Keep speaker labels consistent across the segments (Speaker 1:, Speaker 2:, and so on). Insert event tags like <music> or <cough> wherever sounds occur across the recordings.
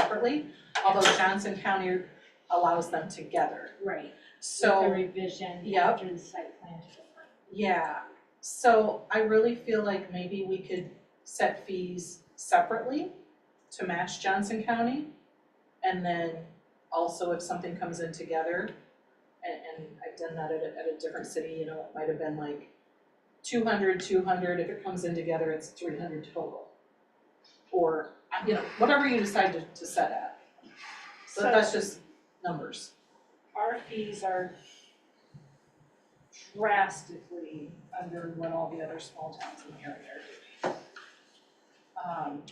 Speaker 1: separately, although Johnson County allows them together.
Speaker 2: Right, with the
Speaker 1: So,
Speaker 2: revision
Speaker 1: Yep.
Speaker 2: after the site plan to the front.
Speaker 1: yeah, so I really feel like maybe we could set fees separately to match Johnson County. And then also if something comes in together, and, and I've done that at a, at a different city, you know, it might have been like 200, 200. if it comes in together, it's three hundred total. Or, uh, you know, whatever you decide to, to set at. So that's just numbers.
Speaker 3: our fees are drastically under what all the other small towns in the area are doing. Um,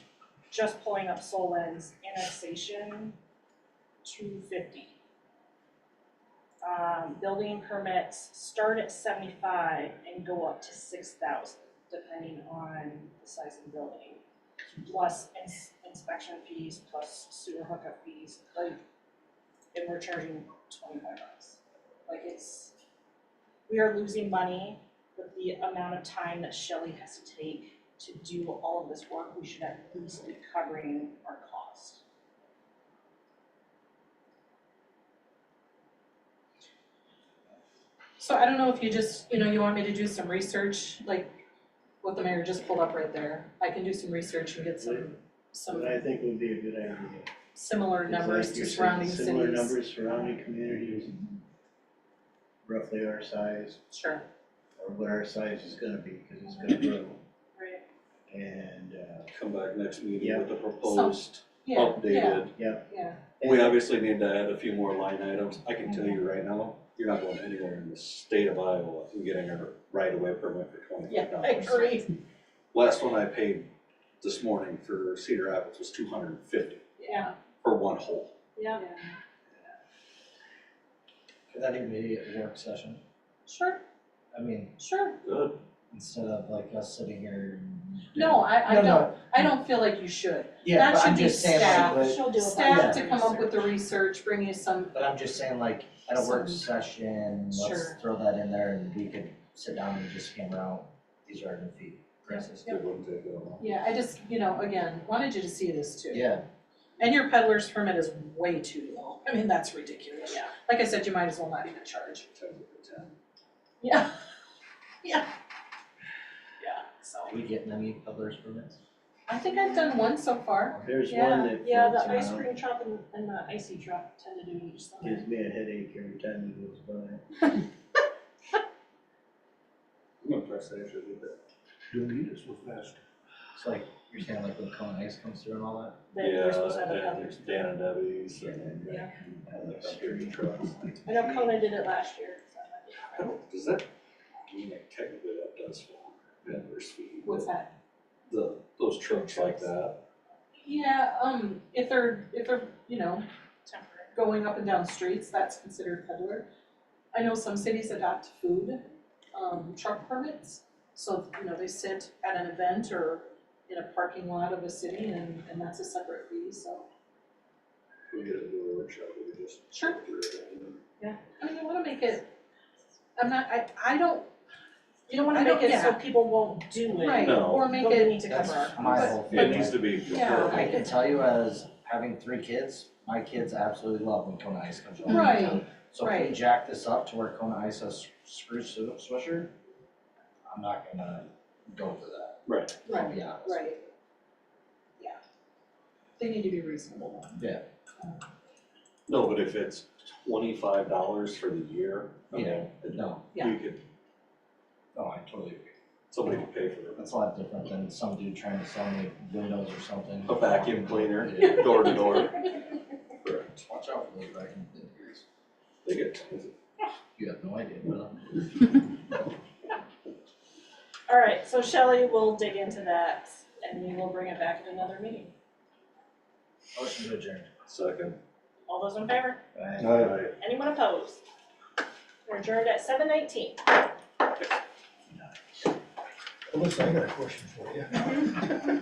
Speaker 3: just pulling up Solon's annexation, two fifty. Um, building permits start at seventy-five and go up to six thousand, depending on the size of the building. Plus ins- inspection fees, plus sewer hookup fees, like, and we're charging twenty-five bucks. Like it's, we are losing money with the amount of time that Shelley has to take to do all of this work, we should at least be covering our cost.
Speaker 1: So I don't know if you just, you know, you want me to do some research, like what the mayor just pulled up right there. I can do some research and get some, some
Speaker 4: What I think would be a good idea.
Speaker 1: similar
Speaker 4: Mm-hmm. It's like
Speaker 1: numbers
Speaker 4: you
Speaker 1: to
Speaker 4: said,
Speaker 1: surrounding cities.
Speaker 4: Similar numbers surrounding communities. Roughly our size,
Speaker 1: Sure,
Speaker 4: or what our size is gonna be, cause it's gonna grow.
Speaker 3: Right.
Speaker 4: And, uh,
Speaker 5: come back next meeting
Speaker 4: Yeah.
Speaker 5: with a proposed
Speaker 1: yeah, yeah,
Speaker 5: updated.
Speaker 1: yeah,
Speaker 5: We obviously need to add a few more line items. I can tell
Speaker 3: Mm-hmm.
Speaker 5: you right now, you're not going anywhere in the state of Iowa and getting a right of way permit for twenty
Speaker 1: yeah,
Speaker 5: five
Speaker 1: I
Speaker 5: dollars.
Speaker 1: agree,
Speaker 5: Last one I paid this morning for Cedar Rapids was two hundred and fifty
Speaker 1: yeah.
Speaker 5: for one hole.
Speaker 3: Yeah.
Speaker 6: Could that even be a work session?
Speaker 1: Sure,
Speaker 6: I mean,
Speaker 1: sure.
Speaker 5: Good.
Speaker 6: instead of like us sitting here.
Speaker 1: No, I, I
Speaker 6: No, no,
Speaker 1: don't, I don't feel like you should.
Speaker 6: Yeah,
Speaker 1: That
Speaker 6: but
Speaker 1: should
Speaker 6: I'm
Speaker 1: be
Speaker 6: just saying like,
Speaker 1: staff.
Speaker 6: but,
Speaker 3: She'll do a bunch
Speaker 1: Staff
Speaker 3: of
Speaker 1: to come up with
Speaker 3: research.
Speaker 1: the research, bring you some,
Speaker 6: but I'm just saying like, at a work
Speaker 1: Some-
Speaker 6: session,
Speaker 1: Sure.
Speaker 6: let's throw that in there and we could sit down and just hammer out, these are our new fee prices.
Speaker 1: Yep.
Speaker 5: It wouldn't take that long.
Speaker 1: yeah, I just, you know, again, wanted you to see this too.
Speaker 6: Yeah,
Speaker 1: And your peddler's permit is way too low. I mean, that's ridiculous. Yeah. Like I said, you might as well not even charge.
Speaker 5: Ten to ten.
Speaker 1: Yeah. Yeah. Yeah, so
Speaker 6: are we getting any peddlers permits?
Speaker 1: I think I've done one so far.
Speaker 4: there's
Speaker 3: Yeah,
Speaker 4: one that
Speaker 3: yeah,
Speaker 4: floats
Speaker 3: the ice
Speaker 4: around.
Speaker 3: cream shop and, and the icy truck tend to do each summer.
Speaker 4: Gives me a headache every time it goes by.
Speaker 5: I'm impressed that I actually did that.
Speaker 7: You'll need it so fast.
Speaker 6: It's like, you're saying like when Cone Ice comes through and all that?
Speaker 3: They- they're supposed to have a
Speaker 5: Yeah, and
Speaker 3: cover.
Speaker 5: there's Dan and Debbie's and
Speaker 3: Yeah.
Speaker 5: and the country trucks.
Speaker 3: I know Kona did it last year, so. I might be-
Speaker 5: I don't, does that, I mean, like, technically that does fall under vendor's fee, but
Speaker 1: that?
Speaker 5: the, those trucks like that,
Speaker 1: Yeah, um, if they're, if they're, you know, going up and down streets, that's considered peddler. I know some cities adopt food, um, truck permits. So, you know, they sit at an event or in a parking lot of a city and, and that's a separate fee, so.
Speaker 5: we get it to a workshop, we could just.
Speaker 1: Sure.
Speaker 5: figure it out, and
Speaker 1: I mean, you wanna make it, I'm not, I, I don't,
Speaker 3: You don't wanna
Speaker 1: I don't-
Speaker 3: make it so
Speaker 1: yeah.
Speaker 3: people won't do it.
Speaker 1: right,
Speaker 5: No.
Speaker 1: or make
Speaker 3: But we
Speaker 1: it,
Speaker 3: need to cover our
Speaker 6: That's
Speaker 3: costs.
Speaker 6: my whole
Speaker 5: It
Speaker 6: thing,
Speaker 5: needs
Speaker 6: like,
Speaker 5: to be
Speaker 1: Yeah,
Speaker 6: I
Speaker 5: comparable.
Speaker 6: can tell you as having three kids, my kids absolutely love when Kona Ice comes around.
Speaker 1: Right,
Speaker 6: So if
Speaker 1: right.
Speaker 6: we jack this up to where Kona Ice has screw su- swisher, I'm not gonna go for that,
Speaker 5: Right,
Speaker 6: I'll be honest.
Speaker 1: Right. Yeah. They need to be reasonable.
Speaker 5: no, but if it's twenty-five dollars for the year, I mean,
Speaker 6: Yeah.
Speaker 5: it-
Speaker 6: No,
Speaker 1: Yeah.
Speaker 5: you could,
Speaker 6: no, I totally agree.
Speaker 5: somebody could pay for
Speaker 6: That's a lot different than some dude trying to sell me windows or something.
Speaker 5: A vacuum cleaner.
Speaker 6: Yeah.
Speaker 5: it, door
Speaker 1: <laughs>
Speaker 5: to door. Correct.
Speaker 6: Watch out for those vacuum cleaners.
Speaker 5: They get tons of
Speaker 6: You have no idea, but
Speaker 3: Alright, so Shelley will dig into that and we will bring it back at another meeting.
Speaker 6: motion to adjourn.
Speaker 5: second.
Speaker 3: All those in favor?
Speaker 6: Right.
Speaker 5: Right.
Speaker 3: Anyone opposed? We're adjourned at seven nineteen.
Speaker 7: Alyssa, I got a question for you.